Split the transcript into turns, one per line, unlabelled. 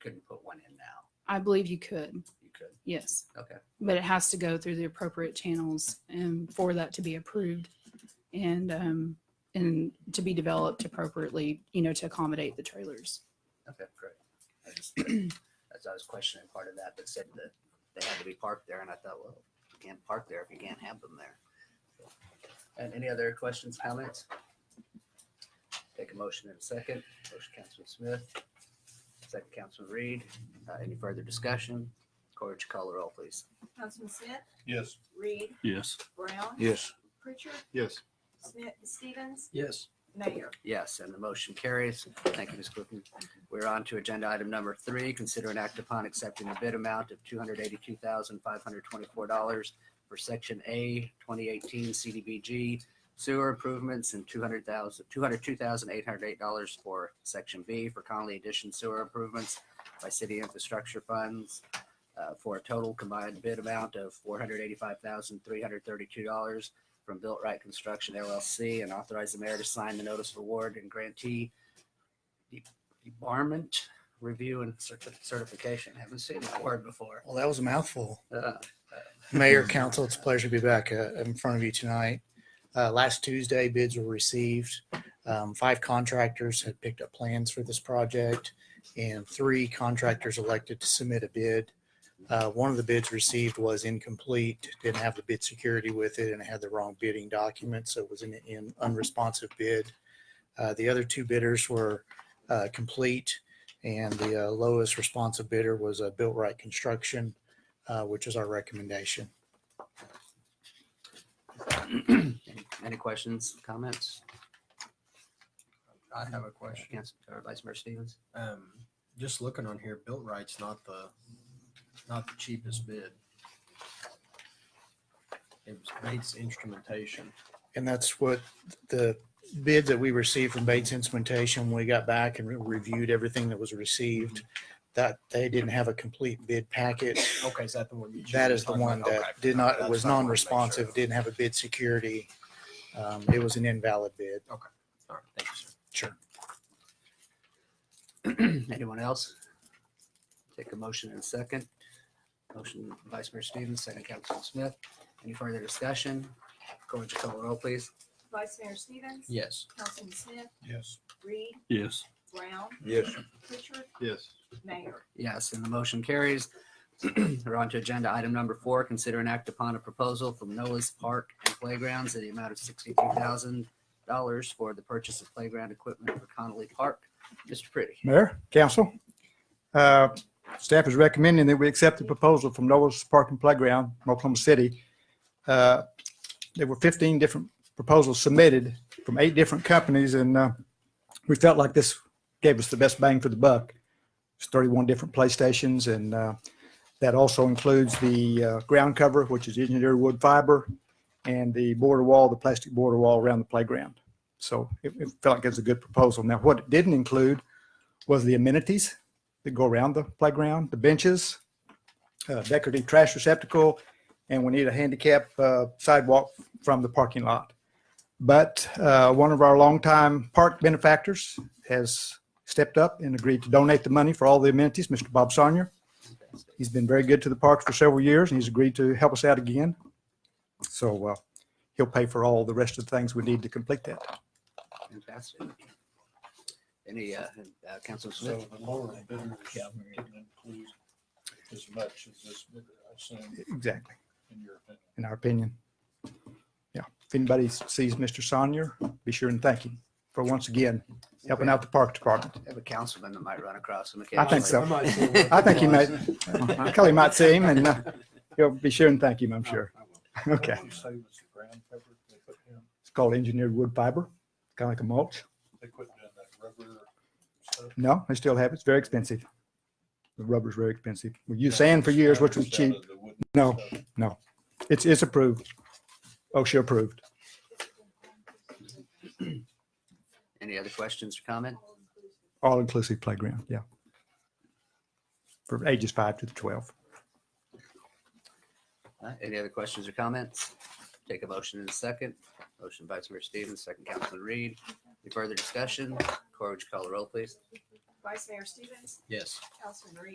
couldn't put one in now.
I believe you could,
You could.
yes.
Okay.
But it has to go through the appropriate channels and for that to be approved and, um, and to be developed appropriately, you know, to accommodate the trailers.
Okay, great. I just, as I was questioning part of that, that said that they had to be parked there, and I thought, well, you can't park there if you can't have them there. And any other questions, comments? Take a motion in a second. Motion, Councilman Smith. Second, Councilman Reed. Uh, any further discussion? Corge, call the roll, please.
Councilman Smith,
Yes.
Reed,
Yes.
Brown,
Yes.
Pritchard,
Yes.
Smith, Stevens,
Yes.
Mayor.
Yes, and the motion carries. Thank you, Ms. Clifton. We're on to agenda item number three, consider an act upon accepting the bid amount of two hundred eighty-two thousand, five hundred twenty-four dollars for section A, twenty eighteen CDBG sewer improvements and two hundred thousand, two hundred two thousand, eight hundred eight dollars for section B for Conley Addition sewer improvements by city infrastructure funds uh, for a total combined bid amount of four hundred eighty-five thousand, three hundred thirty-two dollars from Built Right Construction LLC and authorize the mayor to sign the notice of award and grantee de- debarment review and certi- certification. Haven't seen that word before.
Well, that was a mouthful.
Uh,
Mayor, council, it's a pleasure to be back uh, in front of you tonight. Uh, Last Tuesday, bids were received. Um, Five contractors had picked up plans for this project, and three contractors elected to submit a bid. Uh, One of the bids received was incomplete, didn't have the bid security with it, and it had the wrong bidding document, so it was an an unresponsive bid. Uh, The other two bidders were uh, complete, and the uh, lowest responsive bidder was uh, Built Right Construction uh, which is our recommendation.
Any any questions, comments?
I have a question.
Council, or Vice Mayor Stevens?
Um, just looking on here, built right's not the, not the cheapest bid. It was Bates Instrumentation.
And that's what the bid that we received from Bates Instrumentation, when we got back and re- reviewed everything that was received, that they didn't have a complete bid packet.
Okay, is that the one? you
That is the
talking
one
about?
that
Okay.
did
That's
not, was
what I wanted to make sure
non-responsive,
of.
didn't have a bid security. Um, It was an invalid bid.
All right, thank you, sir.
Sure.
Anyone else? Take a motion in a second. Motion Vice Mayor Stevens, second Councilman Smith. Any further discussion? Corge, call the roll, please.
Vice Mayor Stevens,
Yes.
Councilman Smith,
Yes.
Reed,
Yes.
Brown,
Yes.
Pritchard,
Yes.
Mayor.
Yes, and the motion carries. We're on to agenda item number four, consider an act upon a proposal from Noah's Park and Playgrounds in the amount of sixty-three thousand dollars for the purchase of playground equipment for Connolly Park. Mr. Pretty.
Mayor, council, uh, staff is recommending that we accept the proposal from Noah's Park and Playground, in Oklahoma City. Uh, There were 15 different proposals submitted from eight different companies, and uh, we felt like this gave us the best bang for the buck. It's 31 different PlayStations, and uh, that also includes the uh, ground cover, which is engineered wood fiber, and the border wall, the plastic border wall around the playground. So it it felt like it was a good proposal. Now, what it didn't include was the amenities that go around the playground, the benches, uh, decorative trash receptacle, and we need a handicap uh, sidewalk from the parking lot. But uh, one of our longtime park benefactors has stepped up and agreed to donate the money for all the amenities, Mr. Bob Sarnier. He's been very good to the parks for several years, and he's agreed to help us out again. So uh, he'll pay for all the rest of the things we need to complete that.
Fantastic. Any, uh, uh, Councilman
So
Smith?
the lower bidder didn't include as much as this bidder, I assume,
Exactly.
in your opinion.
in our opinion. Yeah, if anybody sees Mr. Sonier, be sure and thank him for once again helping out the park department.
Have a councilman that might run across him
I think so.
might see
occasionally.
one.
I think he might, Kelly might see him and uh, he'll be sure and thank him, I'm sure. Okay.
What did you say was the ground cover they put down?
It's called engineered wood fiber, kind of like a mulch.
They quit doing that rubber stuff.
No, they still have it. It's very expensive. The rubber's very expensive. We used sand for years, which was
Instead
cheap.
of the wooden
No,
stuff.
no. It's, it's approved. OSHA approved.
Any other questions or comment?
All-inclusive playground, yeah. For ages five to 12.
Uh, Any other questions or comments? Take a motion in a second. Motion Vice Mayor Stevens, second Councilman Reed. Any further discussion? Corr, would you call the roll, please?
Vice Mayor Stevens,
Yes.
Councilman Reed.